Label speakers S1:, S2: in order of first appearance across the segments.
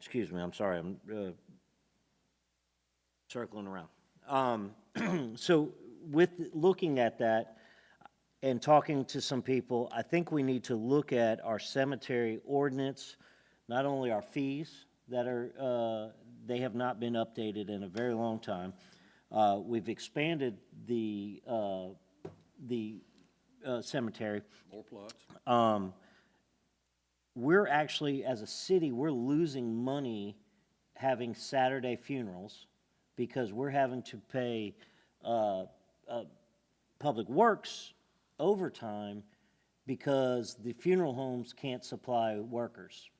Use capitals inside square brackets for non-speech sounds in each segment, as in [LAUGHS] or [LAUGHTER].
S1: excuse me, I'm sorry, I'm uh, circling around. Um, [CLEARS THROAT] So with, looking at that and talking to some people, I think we need to look at our cemetery ordinance, not only our fees that are, uh, they have not been updated in a very long time. Uh, We've expanded the, uh, the uh, cemetery.
S2: More plots.
S1: we're actually, as a city, we're losing money having Saturday funerals because we're having to pay, uh, uh, Public Works overtime because the funeral homes can't supply workers.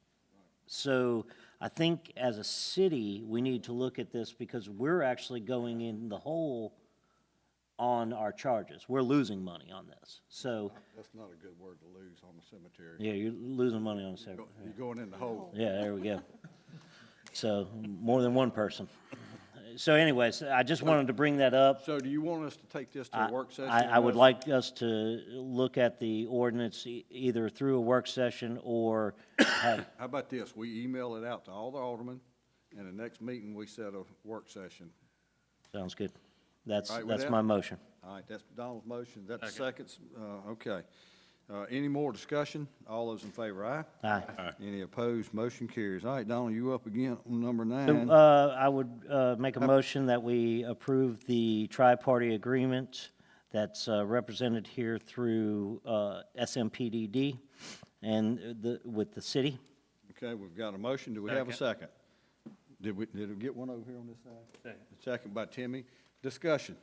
S1: So I think as a city, we need to look at this because we're actually going in the hole on our charges. We're losing money on this. So,
S2: That's not a good word to lose on the cemetery.
S1: yeah, you're losing money on Saturday.
S2: Go- You're going in the hole.
S1: Yeah, there we go. So, more than one person. So anyways, I just wanted to bring that up.
S2: So do you want us to take this to a work session?
S1: I, I would
S2: unless-
S1: like us to look at the ordinance e- either through a work session or [COUGHS] have,
S2: How about this? We email it out to all the aldermen, and the next meeting, we set a work session.
S1: sounds good. That's,
S2: All right with
S1: that's
S2: that?
S1: my motion.
S2: All right, that's Donald's motion. That's seconds. Uh, okay. Uh, any more discussion? All those in favor, aye?
S1: Aye.
S2: Any opposed? Motion carries. All right, Donald, you up again on number
S1: So,
S2: nine.
S1: Uh, I would, uh, make a motion that we approve the tri-party agreement that's uh, represented here through, uh, SMPDD and the, with the city.
S2: Okay, we've got a motion. Do we have a second? Did we, did we get one over here on this side? Second. Second by Timmy. Discussion.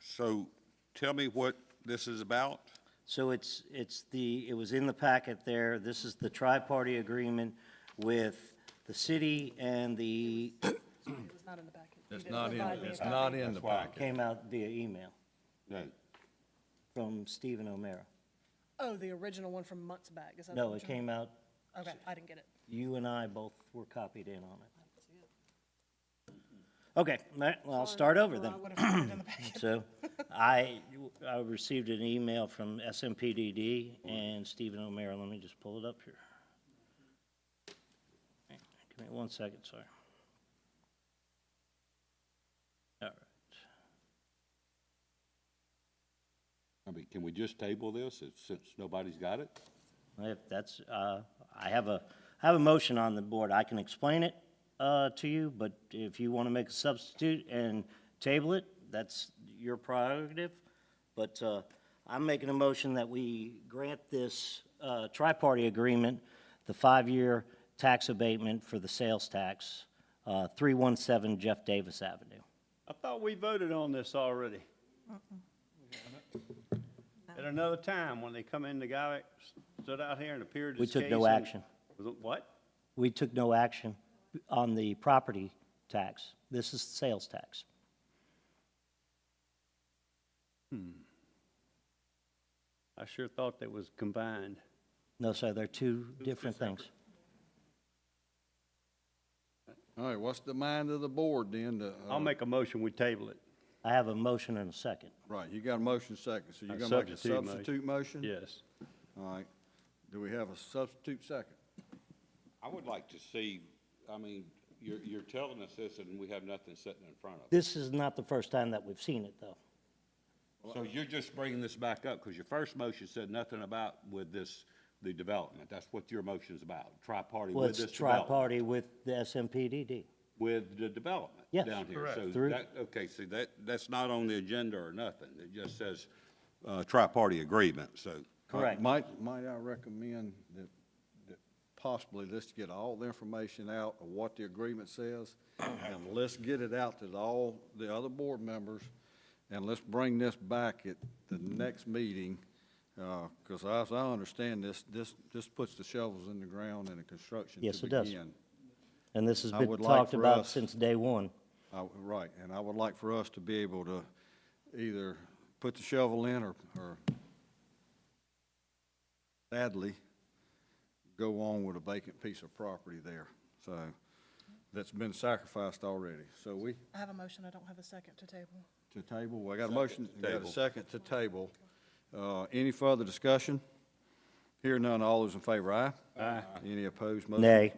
S3: So tell me what this is about.
S1: So it's, it's the, it was in the packet there, this is the tri-party agreement with the city and the,
S4: It was not in the packet.
S2: It's not in, it's not in the packet.
S1: came out via email
S3: Right.
S1: from Stephen O'Meara.
S4: Oh, the original one from months back, is that?
S1: No,
S4: what
S1: it
S4: you-
S1: came out,
S4: Okay, I didn't get it.
S1: you and I both were copied in on it. Okay, ma- well, I'll start over then.
S4: Or I would have put it in
S1: [LAUGHS] [CLEARS THROAT]
S4: the packet.
S1: So I, I received an email from SMPDD and Stephen O'Meara, let me just pull it up here. Give me one second, sorry. All right,
S5: I mean, can we just table this, if- since nobody's got it?
S1: if that's, uh, I have a, I have a motion on the board, I can explain it uh, to you, but if you want to make a substitute and table it, that's your prerogative, but uh, I'm making a motion that we grant this uh, tri-party agreement, the five-year tax abatement for the sales tax, uh, 317 Jeff Davis Avenue.
S6: I thought we voted on this already. At another time, when they come in, the guy stood out here and appeared
S1: We
S6: his case.
S1: took no
S6: and-
S1: action.
S6: Was it What?
S1: We took no action on the property tax, this is sales tax.
S6: I sure thought that was combined.
S1: No, sir, they're two different things.
S2: All right, what's the mind of the board then? to, uh,
S6: I'll make a motion, we table it.
S1: I have a motion and a second.
S2: Right, you got a motion second, so you're
S6: A
S2: gonna make a
S6: substitute motion.
S2: substitute motion?
S6: Yes.
S2: All right, do we have a substitute second?
S5: I would like to see, I mean, you're, you're telling us this and we have nothing sitting in front of us.
S1: This is not the first time that we've seen it, though.
S5: So you're just bringing this back up, because your first motion said nothing about with this, the development. That's what your motion's about, tri-party
S1: Well,
S5: with
S1: it's
S5: this development.
S1: tri-party with the SMPDD.
S5: With the development
S1: Yes.
S5: down here. So
S1: Through-
S5: that, okay, see, that, that's not on the agenda or nothing. It just says, uh, tri-party agreement, so.
S2: All right,
S1: Correct.
S2: Might, might I recommend that, that possibly let's get all the information out of what the agreement says,
S1: [CLEARS THROAT]
S2: and let's get it out to the- all the other board members, and let's bring this back at the next meeting, Uh 'cause cause as I understand this, this, this puts the shovels in the ground and the construction to
S1: Yes, it does.
S2: begin.
S1: And this has
S2: I
S1: been
S2: would like
S1: talked
S2: for
S1: about
S2: us-
S1: since day one.
S2: I w- Right, and I would like for us to be able to either put the shovel in or, or sadly, go on with a vacant piece of property there, so, that's been sacrificed already. So we,
S4: I have a motion, I don't have a second to table.
S2: to table, I got a motion,
S5: to
S2: got a
S5: table.
S2: second to table. Uh, any further discussion? Hear none, all those in favor, aye? Aye. Any opposed, motion
S1: Nay.